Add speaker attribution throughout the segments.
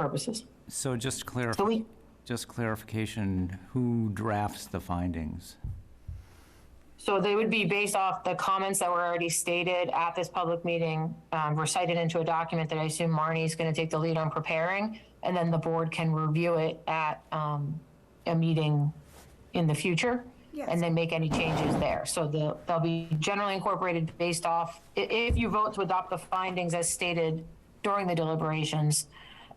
Speaker 1: purposes.
Speaker 2: So just clarif,
Speaker 1: So we,
Speaker 2: just clarification, who drafts the findings?
Speaker 1: so they would be based off the comments that were already stated at this public meeting, um, recited into a document that I assume Marnie's gonna take the lead on preparing, and then the board can review it at, um, a meeting in the future.
Speaker 3: Yes.
Speaker 1: And then make any changes there. So the, they'll be generally incorporated based off, i- if you vote to adopt the findings as stated during the deliberations,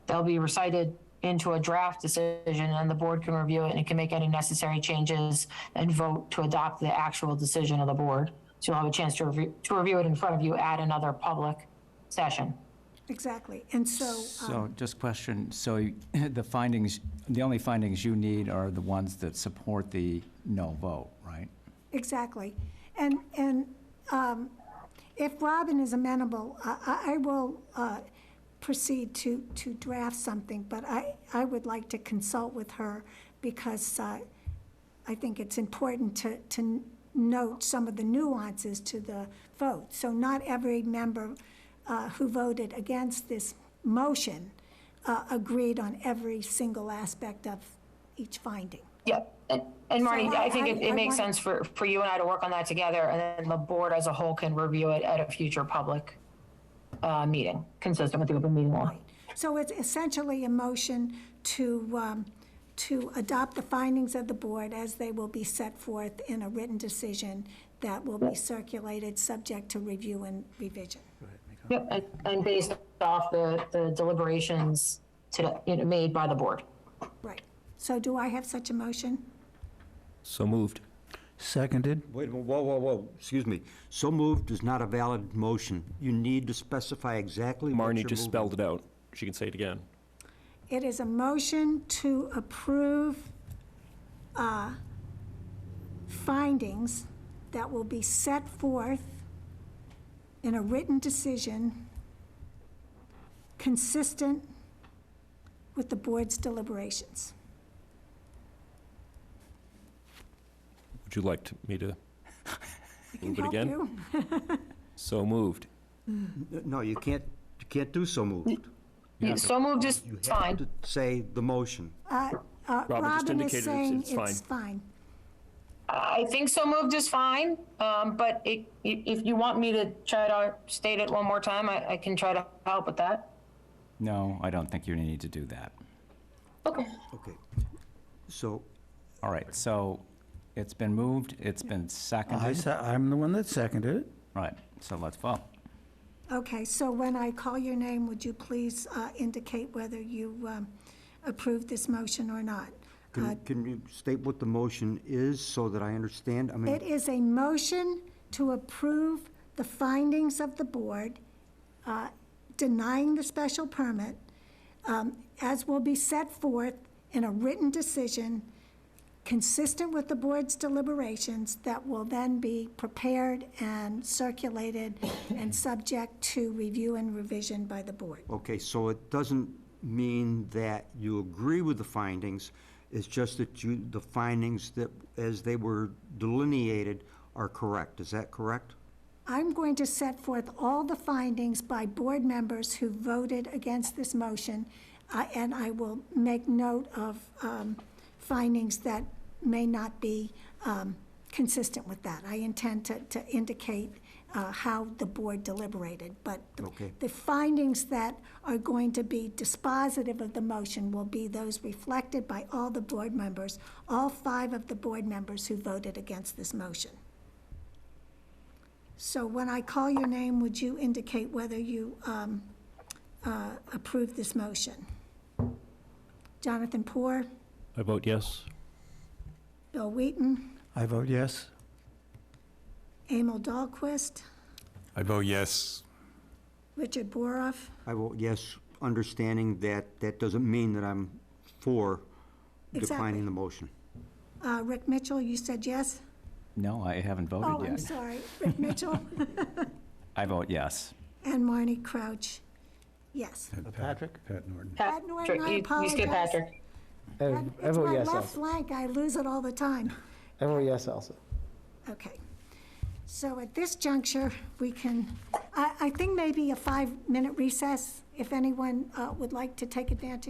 Speaker 1: they'll be recited into a draft decision and the board can review it and it can make any necessary changes and vote to adopt the actual decision of the board. So you'll have a chance to review, to review it in front of you at another public session.
Speaker 3: Exactly, and so, um,
Speaker 2: So just question, so the findings, the only findings you need are the ones that support the no vote, right?
Speaker 3: exactly. And, and um, if Robin is amenable, I, I- I will uh, proceed to, to draft something, but I, I would like to consult with her because uh, I think it's important to, to note some of the nuances to the vote. So not every member uh, who voted against this motion uh, agreed on every single aspect of each finding.
Speaker 1: Yeah, and, and Marty,
Speaker 3: So
Speaker 1: I think it,
Speaker 3: I- I-
Speaker 1: it
Speaker 3: I
Speaker 1: makes
Speaker 3: wanna-
Speaker 1: sense for, for you and I to work on that together, and then the board as a whole can review it at a future public, uh, meeting, consistent with the open meeting law.
Speaker 3: So it's essentially a motion to, um, to adopt the findings of the board as they will be set forth in a written decision that will be circulated, subject to review and revision.
Speaker 1: Yep, and, and based off the, the deliberations today, you know, made by the board.
Speaker 3: Right. So do I have such a motion?
Speaker 4: So moved.
Speaker 5: Seconded?
Speaker 6: Wait a minute, whoa, whoa, whoa, excuse me. So moved is not a valid motion. You need to specify exactly what
Speaker 4: Marnie
Speaker 6: you're
Speaker 4: just
Speaker 6: moving.
Speaker 4: spelled it out. She can say it again.
Speaker 3: It is a motion to approve uh, findings that will be set forth in a written decision consistent with the board's deliberations.
Speaker 4: Would you like to- me to
Speaker 3: Can
Speaker 4: move it
Speaker 3: help
Speaker 4: again?
Speaker 3: you?
Speaker 4: So moved.
Speaker 6: No, you can't, you can't do so moved.
Speaker 1: So moved is
Speaker 6: You have
Speaker 1: fine.
Speaker 6: to say the motion.
Speaker 3: Uh, uh,
Speaker 4: Robin just
Speaker 3: Robin
Speaker 4: indicated
Speaker 3: is
Speaker 4: it's-
Speaker 3: saying
Speaker 4: it's
Speaker 3: it's fine.
Speaker 1: I think so moved is fine, um, but it, i- if you want me to try to state it one more time, I, I can try to help with that.
Speaker 2: No, I don't think you need to do that.
Speaker 1: Okay.
Speaker 6: Okay. So,
Speaker 2: All right, so it's been moved, it's been
Speaker 5: I,
Speaker 2: seconded,
Speaker 5: se- I'm the one that seconded it.
Speaker 2: right, so let's vote.
Speaker 3: Okay, so when I call your name, would you please uh, indicate whether you um, approve this motion or not? Uh,
Speaker 6: can, can you state what the motion is so that I understand? I
Speaker 3: It
Speaker 6: mean,
Speaker 3: is a motion to approve the findings of the board uh, denying the special permit um, as will be set forth in a written decision consistent with the board's deliberations that will then be prepared and circulated and subject to review and revision by the board.
Speaker 6: okay, so it doesn't mean that you agree with the findings. It's just that you, the findings that, as they were delineated, are correct. Is that correct?
Speaker 3: I'm going to set forth all the findings by board members who voted against this motion, uh, and I will make note of um, findings that may not be um, consistent with that. I intend to to indicate uh, how the board deliberated, but the-
Speaker 6: Okay.
Speaker 3: the findings that are going to be dispositive of the motion will be those reflected by all the board members, all five of the board members who voted against this motion. So when I call your name, would you indicate whether you um, uh, approve this motion? Jonathan Poor,
Speaker 4: I vote yes.
Speaker 3: Bill Wheaton,
Speaker 5: I vote yes.
Speaker 3: Emil Dahlquist,
Speaker 7: I vote yes.
Speaker 3: Richard Boroff,
Speaker 6: I vote yes, understanding that that doesn't mean that I'm for
Speaker 3: Exactly.
Speaker 6: declining the motion.
Speaker 3: uh, Rick Mitchell, you said yes?
Speaker 2: No, I haven't
Speaker 3: Oh,
Speaker 2: voted
Speaker 3: I'm
Speaker 2: yet.
Speaker 3: sorry, Rick Mitchell
Speaker 2: I vote yes.
Speaker 3: and Marnie Crouch, yes.
Speaker 5: Patrick? Pat Norton.
Speaker 3: Pat Norton,
Speaker 1: Patrick,
Speaker 3: I
Speaker 1: you- You skip
Speaker 3: apologize.
Speaker 1: Patrick.
Speaker 8: I I
Speaker 3: It's
Speaker 8: vote
Speaker 3: my
Speaker 8: yes
Speaker 3: left
Speaker 8: also.
Speaker 3: flank, I lose it all the time.
Speaker 8: I vote yes also.
Speaker 3: Okay. So at this juncture, we can, I, I think maybe a five-minute recess, if anyone uh, would like to take advantage